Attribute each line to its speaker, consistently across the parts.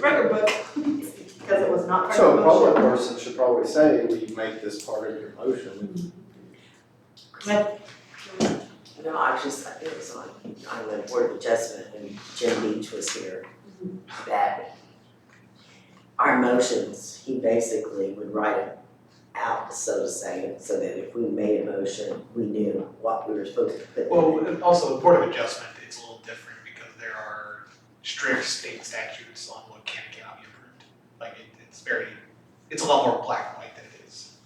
Speaker 1: record book, because it was not part of
Speaker 2: So
Speaker 1: the
Speaker 2: a public
Speaker 1: motion.
Speaker 2: person should probably say, we make this part of your motion.
Speaker 3: No, I just, I think it was on, on the Board of Adjustment when Jim Beach was here, that our motions, he basically would write it out, so to say, so that if we made a motion, we knew what we were supposed to put. in.
Speaker 4: Well, and also the Board of Adjustment, it's a little different because there are strict state statutes on what can and cannot be approved. Like it, it's very, it's a lot more black and white than it is.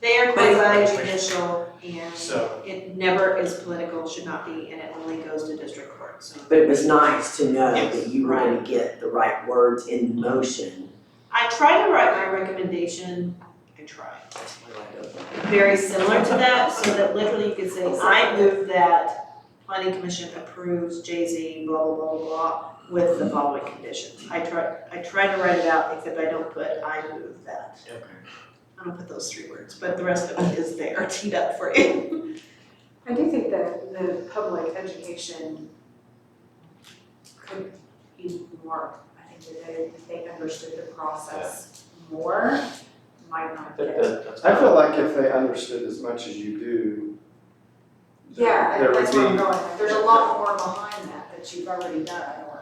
Speaker 1: They are quasi judicial and
Speaker 4: So,
Speaker 1: it never is political, should not be, and it only goes to district court, so.
Speaker 3: But it was nice to know that
Speaker 4: Yes.
Speaker 3: you were gonna get the right words in the motion.
Speaker 1: I tried to write my recommendation, I tried, very similar to that, so that literally you could say, I move that planning commission approves Jay Z, blah, blah, blah, blah, blah, with the following conditions. I tried, I tried to write it out, except I don't put, I move that.
Speaker 3: Okay.
Speaker 1: I don't put those three words, but the rest of it is there teed up for you.
Speaker 5: I do think that the public education could be more, I think that if they understood the process more, might not get.
Speaker 2: I feel like if they understood as much as you do,
Speaker 5: Yeah,
Speaker 2: there
Speaker 5: and
Speaker 2: would
Speaker 5: that's where I'm
Speaker 2: be,
Speaker 5: going, with. there's a lot more behind that that you've already done or.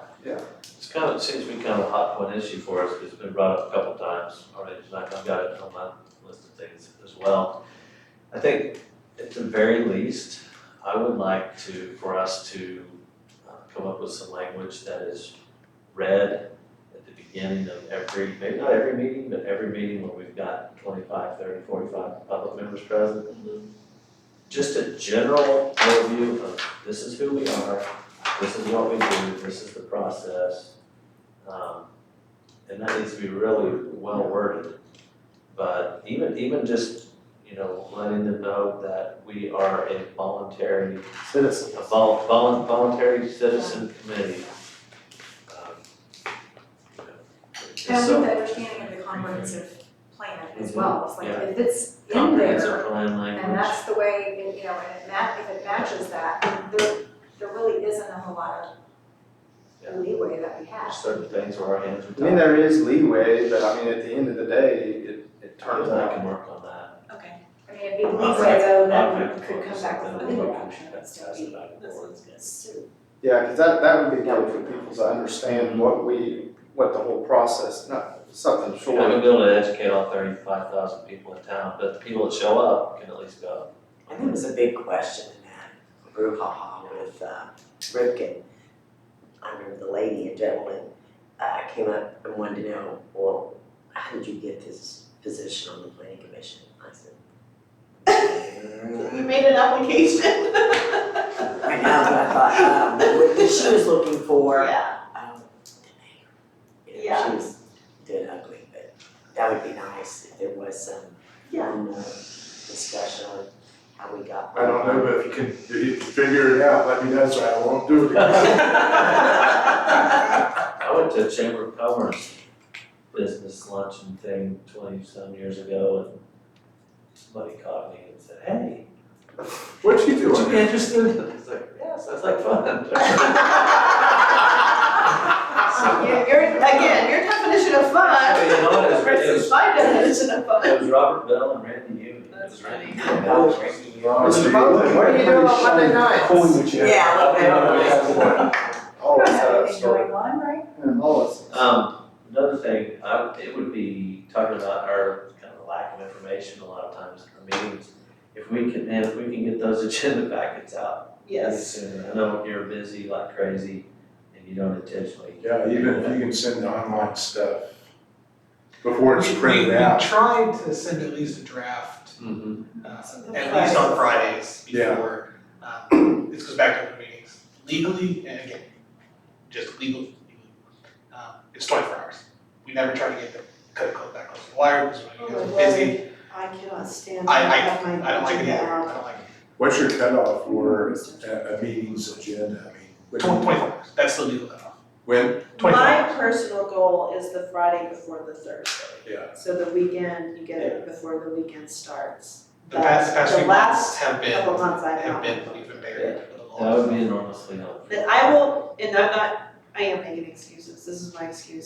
Speaker 6: It's kind of, it seems to be kind of a hot point issue for us, because it's been brought up a couple times already, tonight. I've got it on my list of things as well. I think at the very least, I would like to, for us to uh, come up with some language that is read at the beginning of every, maybe not every meeting, but every meeting where we've got 25, 30, 45 public members present. Just a general overview of this is who we are, this is what we do, this is the process. Um, and that needs to be really well worded. But even, even just, you know, letting them know that we are a voluntary,
Speaker 2: citizens.
Speaker 6: a vol- volun- voluntary citizen committee. Um, you know, it's
Speaker 5: And I
Speaker 6: so-
Speaker 5: think the understanding of the comprehensive plan as well, it's
Speaker 6: Yeah.
Speaker 5: like if it's in
Speaker 6: Comprehensive
Speaker 5: there
Speaker 6: plan language.
Speaker 5: and that's the way, it- you know, and it ma- if it matches that, there, there really isn't a whole lot
Speaker 6: Yeah.
Speaker 5: of leeway that we have.
Speaker 6: There's certain things where our hands are
Speaker 2: I mean,
Speaker 6: tied.
Speaker 2: there is leeway, but I mean, at the end of the day, it, it turns
Speaker 6: I
Speaker 2: out.
Speaker 6: can work on that.
Speaker 1: Okay,
Speaker 5: I mean, it'd be
Speaker 6: Not
Speaker 5: leeway though,
Speaker 6: Not
Speaker 5: then
Speaker 6: really
Speaker 5: we could come
Speaker 6: focus
Speaker 5: back
Speaker 6: on
Speaker 5: with
Speaker 6: that,
Speaker 5: another
Speaker 6: but
Speaker 5: option,
Speaker 6: we
Speaker 5: but
Speaker 6: should
Speaker 5: still
Speaker 6: pass
Speaker 5: be
Speaker 6: it back and forth.
Speaker 5: suit.
Speaker 2: Yeah, because that, that would be good for people to understand what we, what the whole process, not something
Speaker 6: We're not
Speaker 2: short.
Speaker 6: gonna be able to educate all thirty-five thousand people in town, but the people that show up can at least go.
Speaker 3: And there was a big question in that brouhaha with uh, Ripken. I remember the lady and gentleman uh, came up and wanted to know, well, how did you get this position on the planning commission? I said, "Mm,
Speaker 1: we made an application.
Speaker 3: I know, but I thought, um, what she was looking for,
Speaker 1: Yeah,
Speaker 3: um, the mayor. You know,
Speaker 1: Yeah.
Speaker 3: She was dead ugly, but that would be nice if there was some,
Speaker 1: Yeah.
Speaker 3: um, uh, discussion on how we got.
Speaker 7: I don't know, but if you can, if you can figure it out, let me know so I won't do it again.
Speaker 6: I went to a Chamber of Commerce business luncheon thing twenty-some years ago and somebody caught me and said, hey,
Speaker 7: What you
Speaker 6: would you
Speaker 7: doing?
Speaker 6: be interested? I was like, yeah, sounds like fun.
Speaker 1: So you're, you're, again, your definition of fun
Speaker 6: You know, it Oh, was- it
Speaker 1: versus
Speaker 6: was,
Speaker 1: my definition of fun.
Speaker 6: it was Robert Bell and Randy Newman. It was
Speaker 1: That's
Speaker 6: Randy
Speaker 1: funny.
Speaker 6: Newman.
Speaker 3: That was tricky.
Speaker 2: Mr. Bowman, what are you doing on Monday nights?
Speaker 3: Yeah, I love that.
Speaker 2: Always have a
Speaker 5: Everything
Speaker 2: story.
Speaker 5: going on, right?
Speaker 2: Yeah, Always.
Speaker 6: Um, another thing, I, it would be talking about our kind of lack of information a lot of times in our meetings. If we can, man, if we can get those agenda packets out pretty
Speaker 1: Yes.
Speaker 6: sooner, uh, I know you're busy like crazy and you don't intentionally.
Speaker 7: Yeah, even if you can send the online stuff before
Speaker 4: we,
Speaker 7: it's
Speaker 4: we, we
Speaker 7: printed out.
Speaker 4: tried to send at least a draft,
Speaker 6: Mm-hmm.
Speaker 4: uh,
Speaker 1: Something
Speaker 4: at
Speaker 1: like
Speaker 4: least on
Speaker 1: that.
Speaker 4: Fridays
Speaker 7: Yeah.
Speaker 4: before, um, this goes back to open meetings. Legally, and again, just legal, legally, um, it's twenty-four hours. We never try to get the code code back on the wire because
Speaker 1: Oh,
Speaker 4: we know
Speaker 1: my
Speaker 4: we're busy.
Speaker 1: I cannot stand.
Speaker 4: I-
Speaker 1: have my
Speaker 4: I don't like it
Speaker 1: agenda
Speaker 4: either, I
Speaker 1: out.
Speaker 4: don't like
Speaker 7: What's your cutoff for a, a meeting's agenda? I mean,
Speaker 4: it.
Speaker 7: when-
Speaker 4: Tw- Twenty-four hours, that's the legal cutoff.
Speaker 1: Uh,
Speaker 7: When?
Speaker 4: Twenty-four
Speaker 1: My
Speaker 4: hours.
Speaker 1: personal goal is the Friday before the Thursday.
Speaker 7: Yeah.
Speaker 1: So the weekend, you get it before the weekend starts.
Speaker 4: The past,
Speaker 1: the
Speaker 4: past few months
Speaker 1: last
Speaker 4: have been,
Speaker 1: Couple months I've
Speaker 4: have
Speaker 1: had.
Speaker 4: been even bigger for the law.
Speaker 6: That would be enormously helpful.
Speaker 1: That I will, and I'm not, I am making excuses, this is my excuse.